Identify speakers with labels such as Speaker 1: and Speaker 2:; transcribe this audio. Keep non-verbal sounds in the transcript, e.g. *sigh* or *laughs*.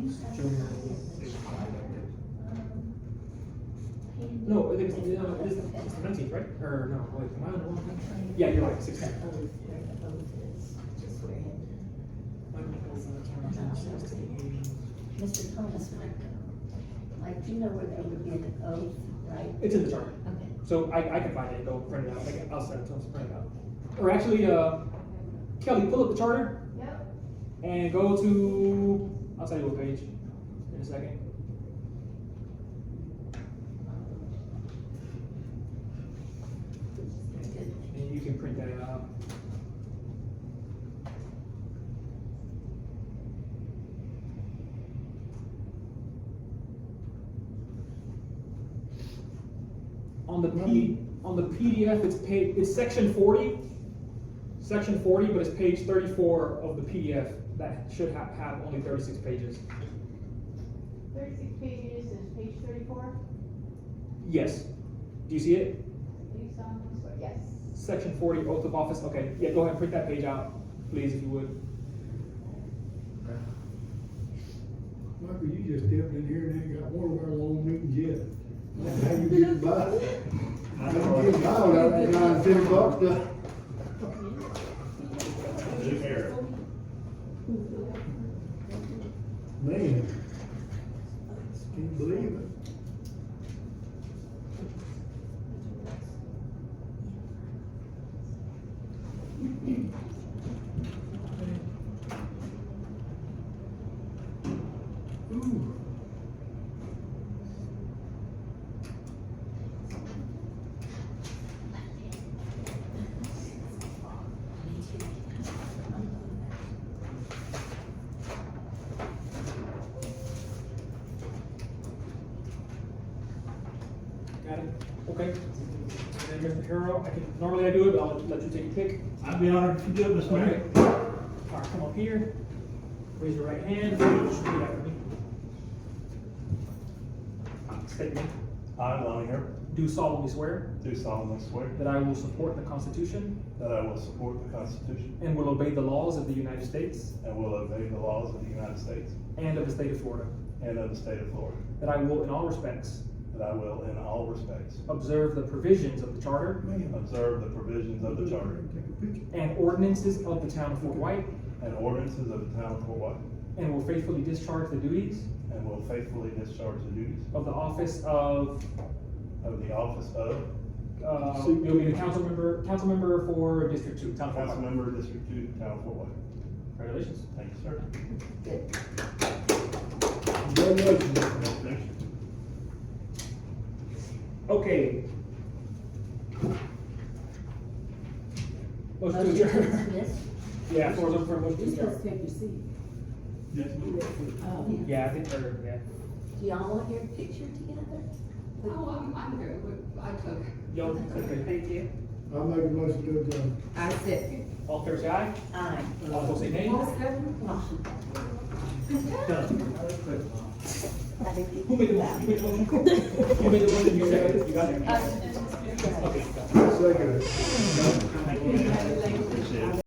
Speaker 1: uh, it on this, it's the nineteenth, right? Or no, wait, am I on the wrong? one? Yeah, you're right, sixteenth.
Speaker 2: Mr. Thomas might know. Mike, do you know where they would get an oath, right?
Speaker 1: It's in the charter,
Speaker 2: Okay.
Speaker 1: so I, I can find it and go print it out, Like, I'll send it to them to print it out. Or actually, uh, Kelly, pull up the charter
Speaker 3: Yep.
Speaker 1: and go to, I'll tell you what page in a second. And you can print that out. On the P, on the PDF, it's page, it's section forty, section forty, but it's page thirty-four of the PDF, that should have, have only thirty-six pages.
Speaker 3: Thirty-six pages is page thirty-four.
Speaker 1: Yes, do you see it?
Speaker 3: Do you sound, yes.
Speaker 1: Section forty, oath of office, okay, yeah, go ahead, and print that page out, please, if you would.
Speaker 4: Michael, you just stepped in here and ain't got one of our long meetings yet. That's How you get by? I don't get by without that nine, ten bucks, though.
Speaker 5: Live here.
Speaker 4: man. Can't believe it. Ooh.
Speaker 1: Got it, okay. And then Mr. Harrell, I can, normally I do it, but I'll let you take a pick.
Speaker 5: I'd be honored if you do it, Mr.
Speaker 1: Okay.
Speaker 5: Mayor.
Speaker 1: All right, come up here, raise your right hand, repeat after me. State your name.
Speaker 5: I, Lonnie Harrell,
Speaker 1: Do solemnly swear
Speaker 5: do solemnly swear
Speaker 1: that I will support the Constitution
Speaker 5: that I will support the Constitution
Speaker 1: and will obey the laws of the United States
Speaker 5: and will obey the laws of the United States
Speaker 1: and of the state of Florida,
Speaker 5: and of the state of Florida,
Speaker 1: that I will in all respects
Speaker 5: that I will in all respects
Speaker 1: observe the provisions of the charter
Speaker 5: observe the provisions of the charter
Speaker 4: Take a picture.
Speaker 1: and ordinances of the town of Fort White,
Speaker 5: and ordinances of the town of Fort White,
Speaker 1: and will faithfully discharge the duties
Speaker 5: and will faithfully discharge the duties
Speaker 1: of the office of
Speaker 5: of the office of
Speaker 1: Uh, you'll be the council member, council member for District Two, Town
Speaker 5: council
Speaker 1: Council.
Speaker 5: member, District Two, town of Fort White.
Speaker 1: Congratulations.
Speaker 5: Thank you, sir.
Speaker 4: Congratulations.
Speaker 5: Thank you.
Speaker 1: Okay. Motion to adjourn.
Speaker 2: Yes.
Speaker 1: *laughs* Yeah, floor's open for a motion to adjourn.
Speaker 2: take your seat.
Speaker 5: Yes, ma'am.
Speaker 2: Do
Speaker 1: Yeah, I think, or, yeah.
Speaker 2: y'all want your picture together?
Speaker 6: Oh, I'm, I'm good, I took.
Speaker 1: Y'all, okay.
Speaker 6: Thank you.
Speaker 4: I'll make a motion to adjourn.
Speaker 6: I second.
Speaker 1: All fair say aye?
Speaker 2: Aye.
Speaker 1: All opposed say nay? Done. Who made the motion? Who made the motion? Who made the Uh, motion?
Speaker 3: Uh,
Speaker 1: You seconded it? You got it? Okay.
Speaker 4: Second.
Speaker 1: Thank you.